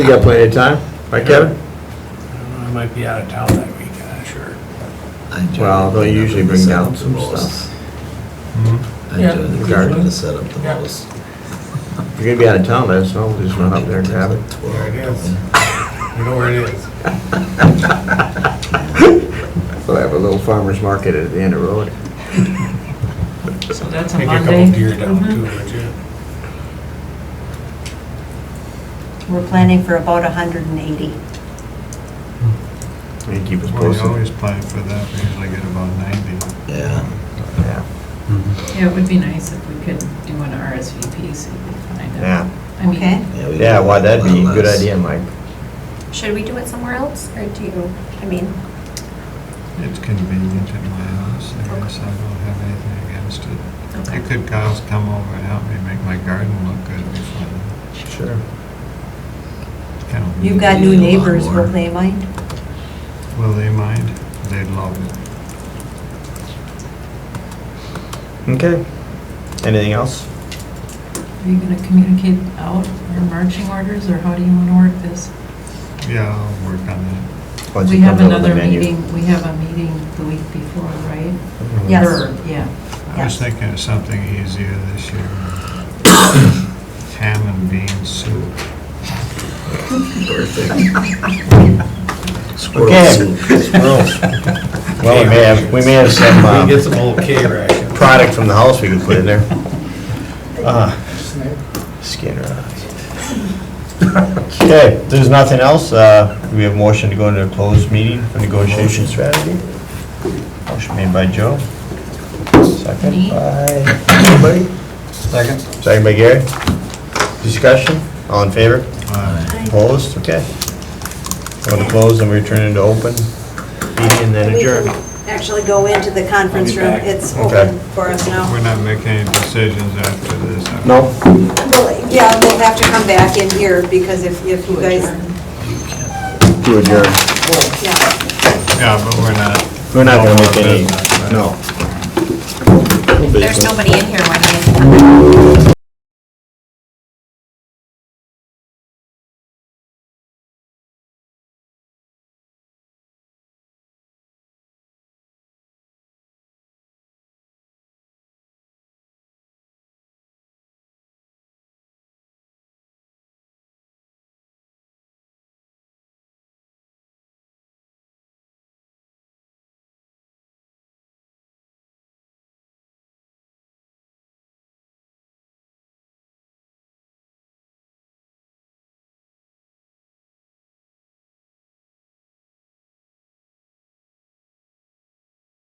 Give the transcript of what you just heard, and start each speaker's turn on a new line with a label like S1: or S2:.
S1: got plenty of time, right, Kevin?
S2: I might be out of town that week, I'm not sure.
S1: Well, they usually bring down some stuff.
S3: I enjoy the cleanup
S1: Garden.
S3: and the setup the
S2: Yeah.
S3: most.
S1: If you're gonna be out of town, let us know, we'll just run up there and grab it.
S2: There it is. You know where it is.
S1: We'll have a little farmer's market at the end of the road.
S4: So that's a
S2: Take a couple
S4: Monday.
S2: deer down too, would you?
S5: We're planning for about 180.
S1: And keep us
S6: Well, you
S1: posted.
S6: always plan for that, we usually get about 90.
S3: Yeah,
S1: Yeah.
S4: Yeah, it would be nice if we could do an RSVP so we could find out.
S1: Yeah.
S4: I mean,
S5: Okay.
S3: yeah. we
S1: Yeah,
S3: do
S1: why, that'd be a
S3: lot
S1: good
S3: less.
S1: idea, Mike.
S7: Should we do it somewhere else, or do you, I mean,
S6: It's convenient in my house, I guess I don't have anything against it. You could guys come over and help me make my garden look good before the
S1: Sure.
S6: town.
S5: You've got
S3: You
S5: new
S3: need a lot
S5: neighbors,
S3: more.
S5: will they mind?
S6: Will they mind? They'd love it.
S1: Okay. Anything else?
S4: Are you going to communicate out your marching orders, or how do you want to work this?
S6: Yeah, I'll work on that.
S1: Once
S4: We
S1: it
S4: have
S1: comes up with the
S4: another
S1: menu.
S4: meeting, we have a meeting the week before, right?
S1: Mhm.
S5: Yes.
S4: Or- Yeah,
S6: I was
S5: Yes.
S6: thinking of something easier this year. Ham and bean soup.
S3: Squirrel soup.
S1: Well, we may have, we may have some
S2: We get
S1: uh,
S2: some old K-Ration.
S1: product from the house we could put in there. Uh, Skinner. Okay, if there's nothing else, uh, we have motion to go into a closed meeting for negotiation strategy. Motion made by Joe. Second
S4: Me.
S1: by, anybody? Second. Second by Gary. Discussion, all in favor?
S6: Uh,
S1: Opposed? Okay. Go to close and we return into open meeting and then
S5: We can
S1: adjourn.
S5: Actually go into the conference room, it's open for us now.
S6: We're not making any decisions after this. I-
S1: No?
S5: Well, Yeah, we'll have to come back in here because if, if you guys,
S1: To adjourn.
S5: yeah.
S6: Yeah, but we're not.
S1: We're not gonna make any, no.
S7: there's nobody in here when you...